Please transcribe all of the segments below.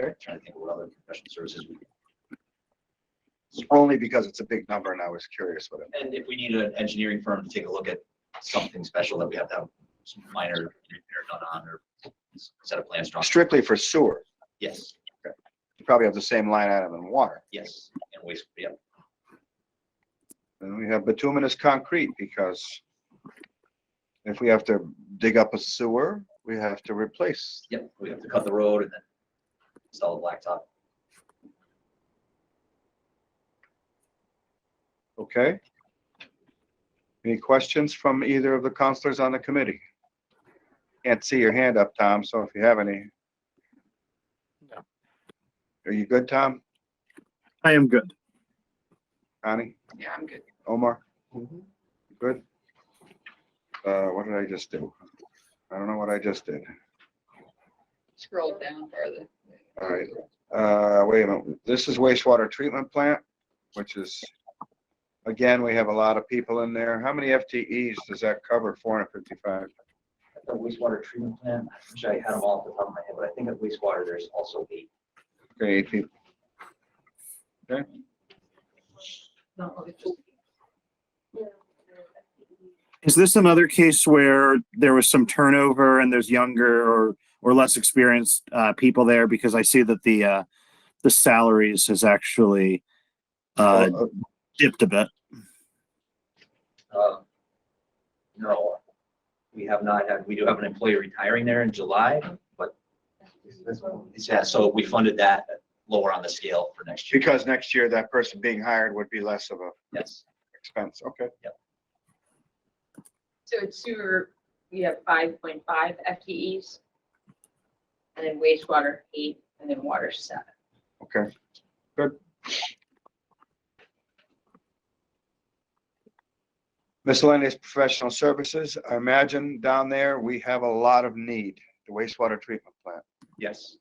Okay, trying to think what other professional services we. could- Only because it's a big number and I was curious what it, And if we need an engineering firm to take a look at something special that we have to have some minor repair done on or set of plans drawn, strictly for sewer, yes, you probably have the same line item in water. yes, and waste, yeah. And we have bituminous concrete because if we have to dig up a sewer, we have to replace. Yep, we have to cut the road and then install the blacktop. Okay? Any questions from either of the counselors on the committee? Can't see your hand up, Tom, so if you have any. No. Are you good, Tom? I am good. Connie? Yeah, I'm good. Omar? Good? Uh, what did I just do? I don't know what I just did. Scroll down further. All right, uh, wait a minute, this is wastewater treatment plant, which is, again, we have a lot of people in there. How many FTEs does that cover? Four hundred fifty-five? The wastewater treatment plant, I wish I had them all off the top of my head, but I think at wastewater, there's also eight. Okay, eight people. Is this another case where there was some turnover and there's younger or, or less experienced uh, people there? Because I see that the, uh, the salaries has actually uh, Uh, dipped a bit. Um, No, we have not had, we do have an employee retiring there in July, but yeah, so we funded that lower on the scale for next year. Because next year, that person being hired would be less of a Yes, expense, okay? So it's sewer, we have five point five FTEs. And then wastewater eight, and then water seven. Okay, good. Miscellaneous professional services, I imagine down there, we have a lot of need, the wastewater treatment plant. yes.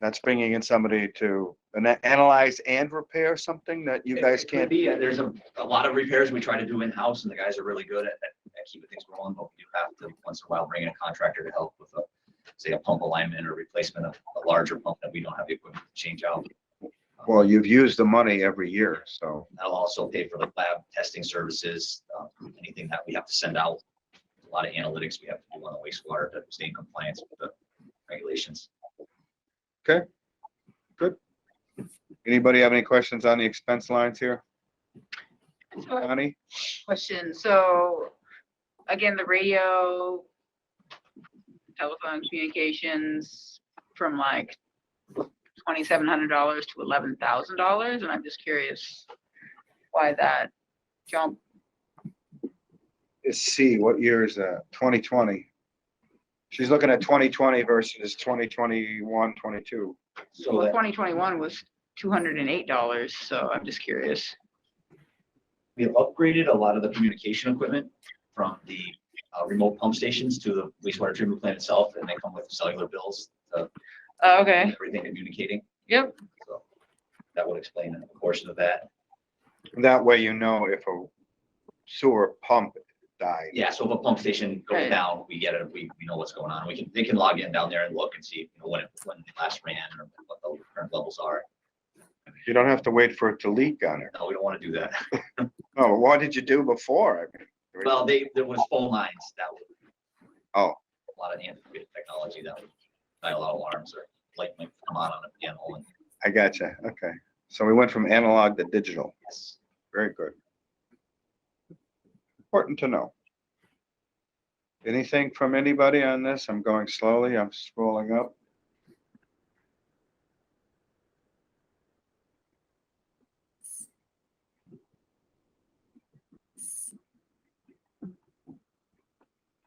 That's bringing in somebody to ana- analyze and repair something that you guys It could can't. Be, uh, there's a, a lot of repairs we try to do in-house and the guys are really good at, at at keeping things rolling, but we do have to, once in a while, bring in a contractor to help with a, say, a pump alignment or replacement of a larger pump that we don't have the equipment to change out. Well, you've used the money every year, so, That'll also pay for like lab testing services, uh, anything that we have to send out. A lot of analytics we have to do on the wastewater to stay in compliance with the regulations. anybody have any questions on the expense lines here? Connie? Question, so, again, the radio, telephone communications from like twenty-seven hundred dollars to eleven thousand dollars, and I'm just curious why that jump, Let's see, what year is that? Twenty twenty. She's looking at twenty twenty versus 2021, 22. So well, that twenty twenty-one was two hundred and eight dollars, so I'm just curious. we have upgraded a lot of the communication equipment from the uh, remote pump stations to the wastewater treatment plant itself, and they come with cellular bills. to Oh, Okay, Everything communicating, yep, so that would explain a portion of that. That way you know if a sewer pump died. Yeah, so if a pump station goes Right. down, we get it, we, we know what's going on, we can, they can log in down there and look and see, you know, when it, when it last ran or what the current levels are. You don't have to wait for it to leak on it. No, we don't want to do that. Oh, what did you do before? I mean, Well, they, there was phone lines that would. Oh. A lot of antiquated technology that would dial out alarms or light might come on on a panel and I gotcha, okay. So we went from analog to digital. yes. Very good. Important to know. Anything from anybody on this? I'm going slowly. I'm scrolling up.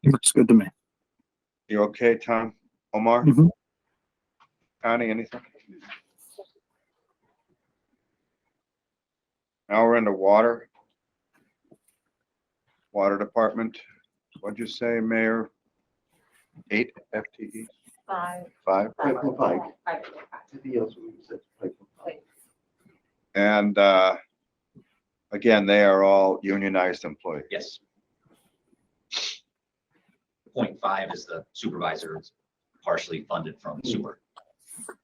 Looks good to me. You okay, Tom? Omar? Mhm. Connie, anything? Now we're into water. Water Department. What'd you say, Mayor? Eight FTE, Five. five? Five. And uh, again, they are all unionized employees. Yes. Point five is the supervisor, it's partially funded from sewer.